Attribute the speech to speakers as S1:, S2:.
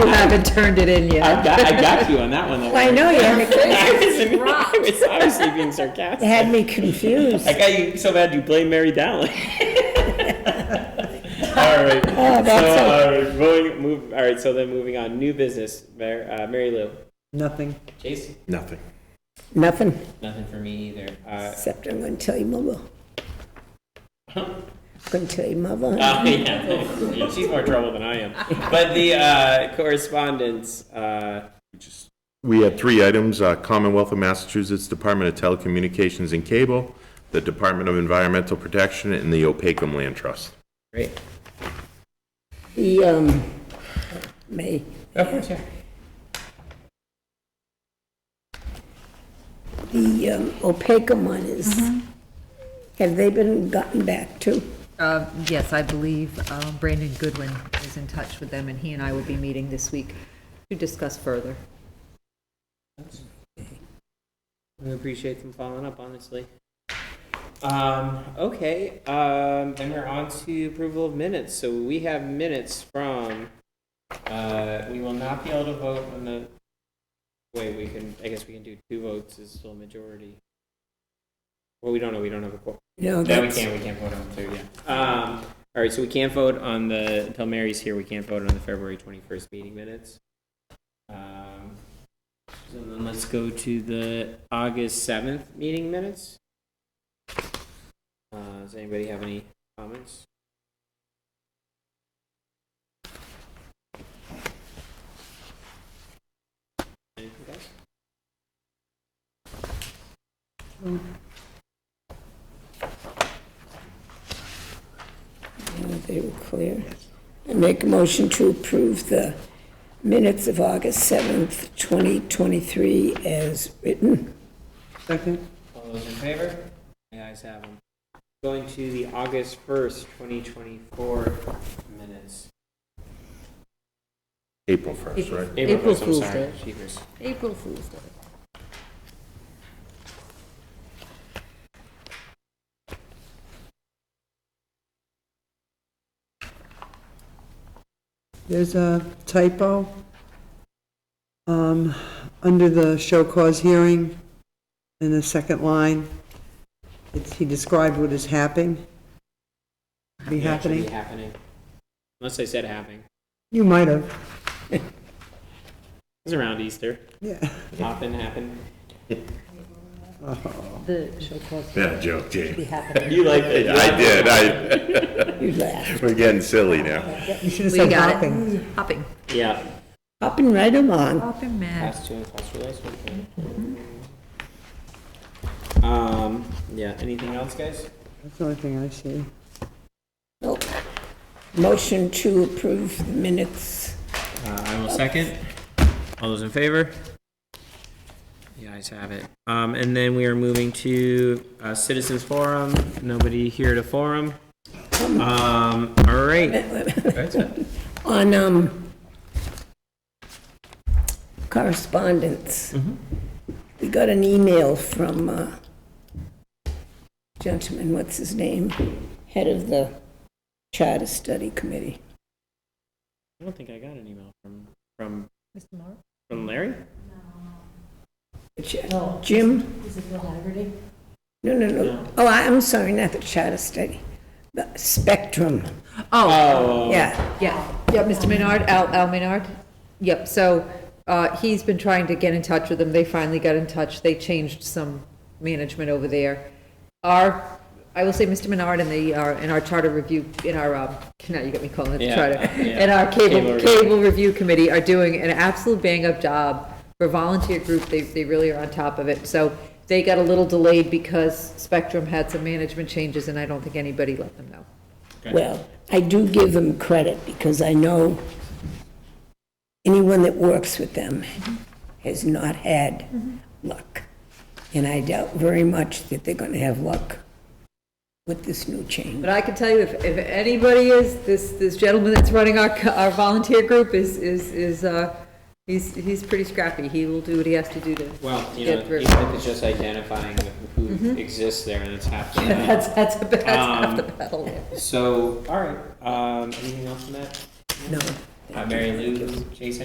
S1: You haven't turned it in yet.
S2: I got, I got you on that one. though.
S3: I know, you had me,
S2: I was, I was obviously being
S3: you
S2: sarcastic.
S3: had me confused.
S2: I got you so bad you blame Mary Dowling. all right.
S3: Oh,
S2: so,
S3: that's
S2: all right, moving, move, all right. So then, moving on, new business. Mary, uh, Mary Lou.
S4: Nothing.
S2: Chase,
S5: Nothing.
S3: Nothing,
S2: nothing for me either. Uh,
S3: except I'm gonna tell your mother. I'm gonna tell your mother.
S2: uh, yeah, she's more trouble than I am. But the uh, correspondence. Uh,
S5: We had three items, uh, Commonwealth of Massachusetts Department of Telecommunications and Cable, the Department of Environmental Protection, and the Opacum Land Trust.
S2: great.
S3: The, um, May,
S2: Of course, yeah.
S3: the um, Opeka one is,
S1: Mm-hmm.
S3: have they been gotten back to?
S1: Uh, Yes, I believe uh, Brandon Goodwin is in touch with them, and he and I will be meeting this week to discuss further.
S2: We appreciate them following up, honestly. Um, okay, um, then we're on to approval of minutes. So we have minutes from, uh, we will not be able to vote on the, wait, we can, I guess we can do two votes is still a majority. Well, we don't know, we don't have a quorum.
S3: No,
S2: No, we
S3: that's,
S2: can't, we can't vote on the third, yeah. Um, all right, so we can't vote on the, until Mary's here, we can't vote on the February twenty-first meeting minutes. Um, So then let's go to the August seventh meeting minutes. Uh, does anybody have any comments? Anything else?
S3: no, they were clear. I make a motion to approve the minutes of August 7th, 2023 as written.
S4: Second.
S2: All those in favor? The ayes have them. Going to the August 1st, 2024 minutes.
S5: April 1st, right?
S1: April
S2: 1st, I'm
S1: Fool's
S2: sorry.
S1: Day.
S2: Jeepers.
S1: April Fool's Day.
S4: There's a typo. Um, under the show cause hearing, in the second line, it's, he described what is happening. Be
S2: Yeah, it should Be
S4: happening.
S2: happening. Unless I said happening.
S4: You might have,
S2: It's around Easter.
S4: yeah.
S2: Often happen.
S1: The show called
S5: Bad joke, Dave.
S2: You like that? you
S5: I
S2: like
S5: did,
S2: that.
S5: I,
S3: You laugh.
S5: we're getting silly now.
S4: You should have
S1: We
S4: said
S1: got
S4: hopping.
S1: it. Hopping.
S2: Yeah.
S3: Hopping right along.
S1: Hopping mad.
S2: Last two, last two, last one. Um, yeah, anything else, guys?
S4: That's the only thing I see.
S3: Nope. Motion to approve the minutes.
S2: Uh, I will second. All those in favor? The ayes have it. Um, and then we are moving to, uh, citizens forum. Nobody here to forum. Um, all right.
S3: On, um, correspondence.
S6: Mm-hmm.
S3: We got an email from, uh, gentleman, what's his name? Head of the Charter Study Committee.
S2: I don't think I got an email from, from,
S1: Mr. Mark?
S2: from Larry?
S3: Ch- uh, Jim?
S6: Oh. Is it Bill Haggerty?
S3: No, no, no. Oh, I- I'm sorry, not the Charter Study, the Spectrum.
S2: Oh.
S3: Yeah,
S1: Yeah, yeah, Mr. Menard, Al, Al Menard. Yep, so, uh, he's been trying to get in touch with them, they finally got in touch, they changed some management over there. Our, I will say, Mr. Menard and the, uh, and our charter review, in our, um, now you got me calling it the
S2: Yeah,
S1: charter.
S2: yeah.
S1: And our
S2: Cable
S1: cable,
S2: review.
S1: cable review committee are doing an absolute bang-up job for volunteer group, they, they really are on top of it. So they got a little delayed because Spectrum had some management changes, and I don't think anybody let them know.
S3: well, I do give them credit because I know anyone that works with them has not had luck. And I doubt very much that they're going to have luck with this new change.
S1: But I can tell you, if, if anybody is, this, this gentleman that's running our, co- our volunteer group is, is, is, uh, he's, he's pretty scrappy. He will do what he has to do to.
S2: Well, you
S1: get
S2: know,
S1: through.
S2: even if it's just identifying who exists there, that's half the battle.
S1: That's, that's, that's half the
S2: Um,
S1: battle there.
S2: So, all right, um, anything else on that?
S3: No.
S2: Uh, Mary Lou, Jason?